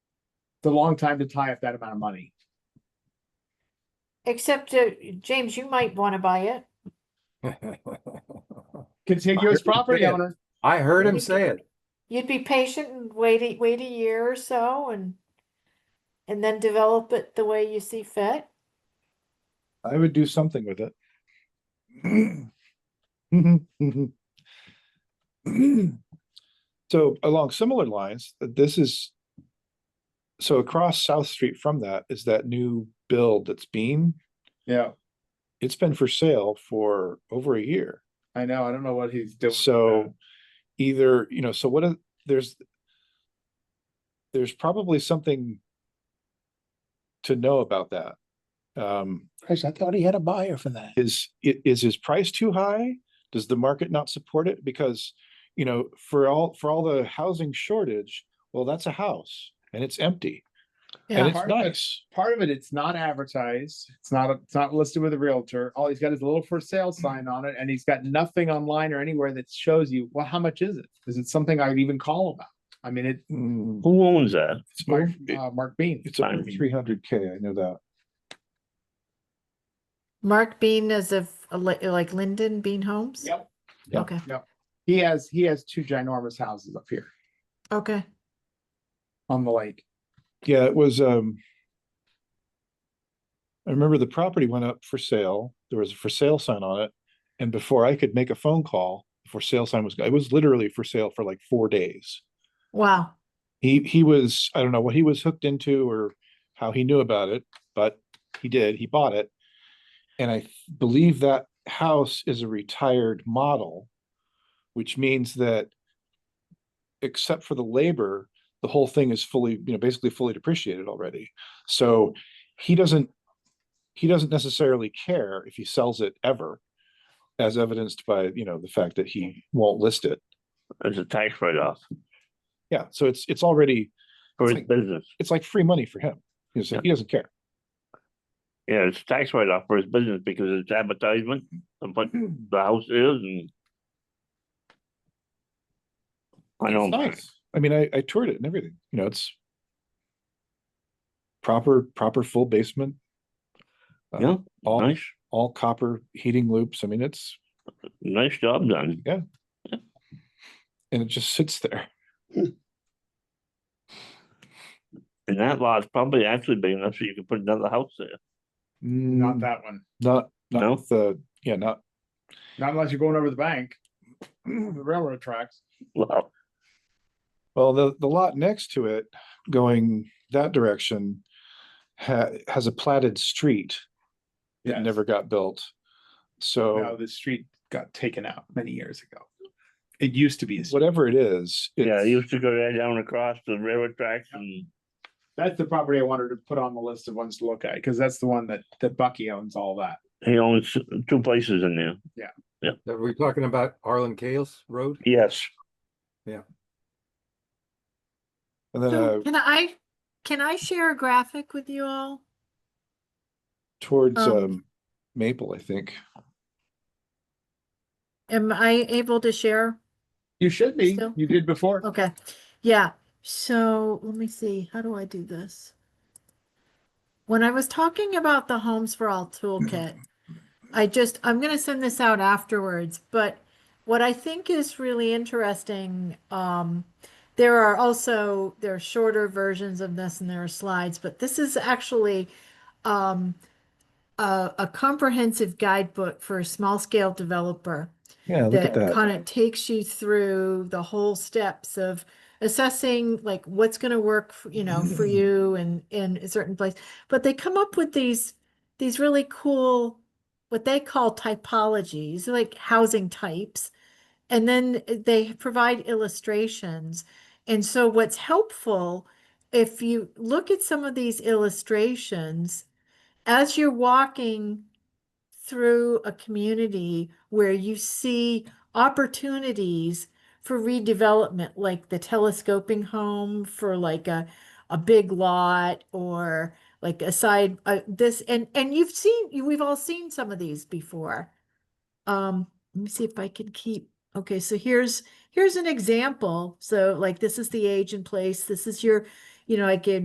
it's a long time to tie up that amount of money. Except, uh, James, you might want to buy it. Contiguous Hundred property percent. owner, I heard him You say could- it. You'd be patient and wait, a- wait a year or so and and then develop it the way you see fit. I would do something with it. So along similar lines, th- this is. So across South Street from that is that new build that's Beam. yeah, It's been for sale for over a year. I know, I don't know what he's doing. with So either, you know, so what, are- there's. There's probably something. To know about that. Um, Chris, I thought he had a buyer for that. is, i- is his price too high? Does the market not support it? Because, you know, for all, for all the housing shortage, well, that's a house and it's empty and Part it's of it- nice. that. Part of it, it's not advertised, it's not, it's not listed with a realtor, all he's got is a little for sale sign on it, and he's got nothing online or anywhere that shows you, well, how much is it? Is it something I'd even call about? I mean, it, Mm, Who owns that? It's Mark, over, it- uh, Mark Bean, it's over fine. three hundred K, I know that. Mark Bean is of uh, li- like Linden Bean Homes? Yep. Yep. Okay, he has, he has two ginormous houses up here okay. on the lake. Yeah, it was, um. I remember the property went up for sale. There was a for sale sign on it. And before I could make a phone call, the for sale sign was, it was literally for sale for like four days. Wow. he he was i don't know what he was hooked into or how he knew about it but he did he bought it and i th- believe that house is a retired model which means that except for the labor the whole thing is fully you know basically fully depreciated already so he doesn't he doesn't necessarily care if he sells it ever as evidenced by you know the fact that he won't list it It's a tax write-off yeah so it's it's already for It's his like- business. it's like free money for him. He doesn't, Yeah. he doesn't care. Yeah, it's a tax write-off for his business because it's advertisement of what the house is and. I It's don't, nice. I mean, I, I toured it and everything, you know, it's proper, proper full basement, uh, yeah, all, nice, all copper heating loops. I mean, it's, nice job done. and it just sits there. And that lot's probably actually big enough so you can put another house there. Not Mm, that one, Not, No? not with the, yeah, not, not unless you're going over the bank, the railroad tracks. Well, well, the, the lot next to it going that direction ha- has a platted street that Yes. never got built. Now So the street got taken out many years ago. It used to be, a street. whatever it is. yeah, it's- he used to go right down across the railroad tracks and, that's the property I wanted to put on the list of ones to look at, because that's the one that, that Bucky owns all that. he owns two places in there. Are we talking about Arlen Cales Road? Yes, And then So uh, Can I, can I share a graphic with you all? towards Um, um Maple, I think. Am I able to share? You should be, Still? you did before. Okay, yeah, so let me see, how do I do this? When I was talking about the Homes for All toolkit, I just, I'm gonna send this out afterwards, but what I think is really interesting, um, there are also, there are shorter versions of this and there are slides, but this is actually, um, a, a comprehensive guidebook for a small scale developer Yeah, look that at that. kind of takes you through the whole steps of assessing like what's going to work f- you know Mm-hmm. for you and in a certain place but they come up with these these really cool what they call typologies like housing types and then eh, they provide illustrations and so what's helpful if you look at some of these illustrations as you're walking through a community where you see opportunities for redevelopment, like the telescoping home for like a, a big lot or like a side, uh, this, and, and you've seen, you- we've all seen some of these before. Um, let me see if I can keep, okay, so here's, here's an example. So like, this is the age and place, this is your, you know, I gave